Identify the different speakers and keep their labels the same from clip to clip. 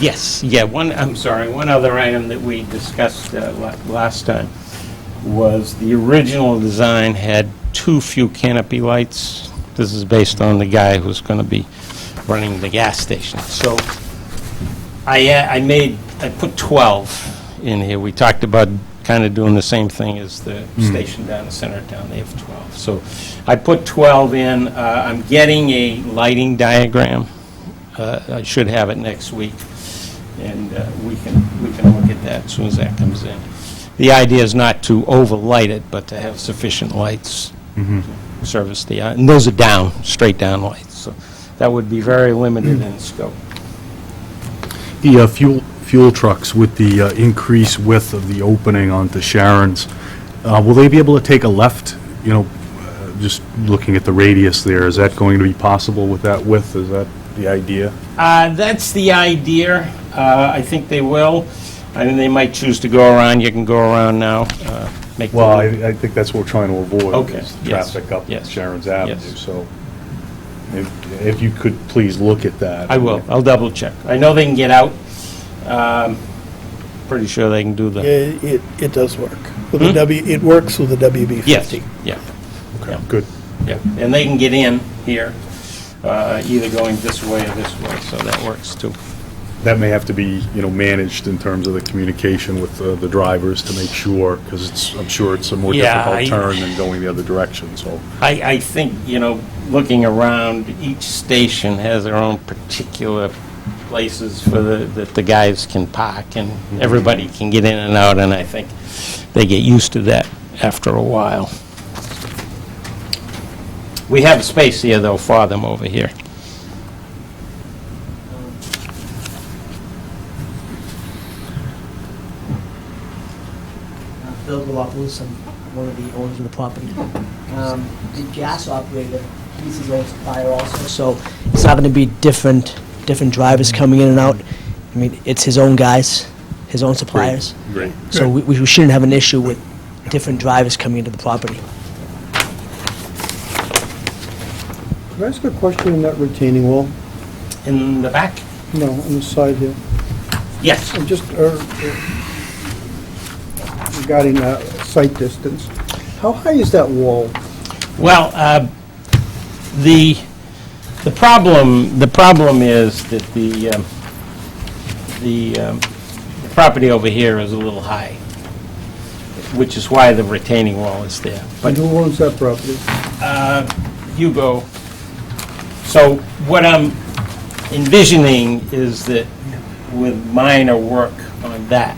Speaker 1: Yes, yeah, one, I'm sorry, one other item that we discussed uh, la- last time was the original design had too few canopy lights. This is based on the guy who's going to be running the gas station. So I, uh, I made, I put 12 in here. We talked about kind of doing the same thing as the station down the center of town. They have 12. So I put 12 in. Uh, I'm getting a lighting diagram. Uh, I should have it next week, and uh, we can, we can look at that as soon as that comes in. The idea is not to overlight it, but to have sufficient lights
Speaker 2: Mm-hmm.
Speaker 1: to service the, eye. and those are down, straight down lights, so that would be very limited in scope.
Speaker 2: The uh, fuel, fuel trucks with the uh, increased width of the opening onto Sharon's, uh, will they be able to take a left? You know, uh, just looking at the radius there, is that going to be possible with that width? Is that the idea?
Speaker 1: Uh, That's the idea. Uh, I think they will. I mean, they might choose to go around. You can go around now. uh, Make the
Speaker 2: Well, I,
Speaker 1: loop.
Speaker 2: I think that's what we're trying to avoid.
Speaker 1: Okay,
Speaker 2: is
Speaker 1: yes,
Speaker 2: Traffic up
Speaker 1: yes,
Speaker 2: Sharon's Avenue,
Speaker 1: yes.
Speaker 2: so if, if you could please look at that.
Speaker 1: I will. I'll double check. I know they can get out. Um, Pretty sure they can do
Speaker 3: Yeah,
Speaker 1: the,
Speaker 3: It, it does work. With the W, it works with the WB
Speaker 1: yes,
Speaker 3: 50.
Speaker 1: yeah,
Speaker 2: Okay, Good.
Speaker 1: yeah. And they can get in here, uh, either going this way or this way, so that works too.
Speaker 2: That may have to be, you know, managed in terms of the communication with uh, the drivers to make sure, because it's, I'm sure it's a more
Speaker 1: Yeah, I-
Speaker 2: difficult turn than going the other direction, so.
Speaker 1: I, I think, you know, looking around, each station has their own particular places for the, that the guys can park, and everybody can get in and out, and I think they get used to that after a while. We have space here, though, for them over here.
Speaker 4: Uh, Bill Galopoulos, I'm one of the owners of the property. Um, The gas operator, he's his own supplier also, so it's not going to be different, different drivers coming in and out. I mean, it's his own guys, his own suppliers,
Speaker 2: Great.
Speaker 4: so we we shouldn't have an issue with different drivers coming into the property.
Speaker 5: Can I ask a question on that retaining wall?
Speaker 1: In the back?
Speaker 5: No, on the side here.
Speaker 1: Yes.
Speaker 5: I'm just, uh, uh, regarding uh, sight distance, how high is that wall?
Speaker 1: Well, uh, the, the problem, the problem is that the, um, the um, the property over here is a little high, which is why the retaining wall is there.
Speaker 5: And
Speaker 1: But
Speaker 5: who owns that property?
Speaker 1: Hugo, so what I'm envisioning is that with minor work on that,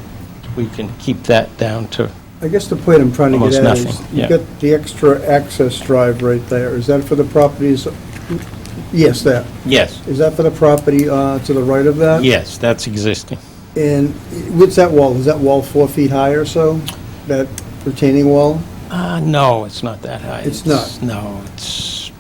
Speaker 1: we can keep that down to,
Speaker 5: I guess the point I'm trying to
Speaker 1: Almost
Speaker 5: get at is,
Speaker 1: nothing, yeah.
Speaker 5: you got the extra access drive right there, is that for the properties? Yes, that.
Speaker 1: yes,
Speaker 5: Is that for the property uh, to the right of that?
Speaker 1: yes, that's existing.
Speaker 5: And what's that wall? Is that wall four feet high or so? That retaining wall?
Speaker 1: Uh, no, it's not that high.
Speaker 5: It's not.
Speaker 1: No, it's,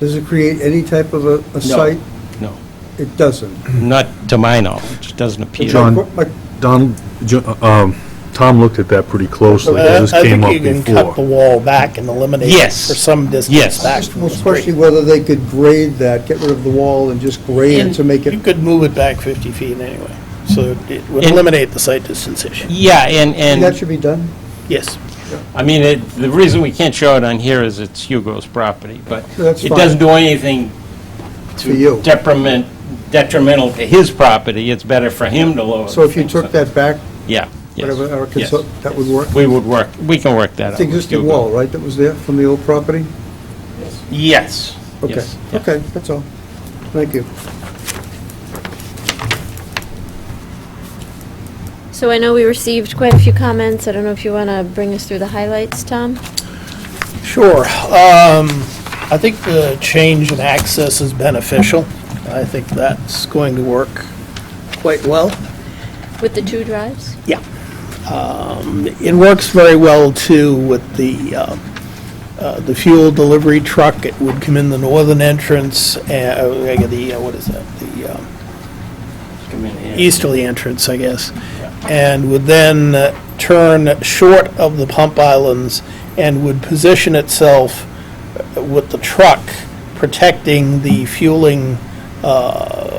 Speaker 5: Does it create any type of a- a site?
Speaker 1: no.
Speaker 5: It doesn't.
Speaker 1: Not to my knowledge, it doesn't appear.
Speaker 2: John.
Speaker 5: My-
Speaker 2: Donald, Jo- um, Tom looked at that pretty closely,
Speaker 3: I I
Speaker 2: because this came
Speaker 3: think
Speaker 2: up
Speaker 3: you can cut the
Speaker 2: before.
Speaker 3: wall back and eliminate it
Speaker 1: Yes.
Speaker 3: for some
Speaker 1: Yes.
Speaker 3: distance back from
Speaker 5: Well,
Speaker 3: the
Speaker 5: especially
Speaker 3: street.
Speaker 5: whether they could grade that, get rid of the wall and just grade it to make
Speaker 3: You
Speaker 5: it,
Speaker 3: could move it back 50 feet anyway, so it would
Speaker 1: And-
Speaker 3: eliminate the site distance issue.
Speaker 1: Yeah, and,
Speaker 5: that
Speaker 1: and,
Speaker 5: should be done?
Speaker 3: Yes.
Speaker 1: I mean, it- the reason we can't show it on here is it's Hugo's property, but
Speaker 5: That's
Speaker 1: it
Speaker 5: fine.
Speaker 1: doesn't do anything
Speaker 5: For you.
Speaker 1: to detriment, detrimental to his property, it's better for him to lower.
Speaker 5: So if you
Speaker 1: the
Speaker 5: took
Speaker 1: things.
Speaker 5: that back,
Speaker 1: Yeah, yes,
Speaker 5: whatever, our
Speaker 1: yes.
Speaker 5: consult- that would work?
Speaker 1: we would work, we can work that out.
Speaker 5: It's the
Speaker 1: with
Speaker 5: existing
Speaker 1: Hugo.
Speaker 5: wall, right, that was there from the old property?
Speaker 1: Yes.
Speaker 5: Okay,
Speaker 1: yes, yeah.
Speaker 5: okay, that's all. Thank you.
Speaker 6: So I know we received quite a few comments. I don't know if you want to bring us through the highlights, Tom?
Speaker 3: Sure. Um, I think the change in access is beneficial. I think that's going to work quite well.
Speaker 6: With the two drives?
Speaker 3: Yeah. Um, It works very well, too, with the, uh, uh, the fuel delivery truck. It would come in the northern entrance, uh, uh, the, uh, what is that? The um,
Speaker 1: Come in here.
Speaker 3: easterly entrance, I guess, and would then uh, turn short of the pump islands and would position itself uh, with the truck protecting the fueling uh,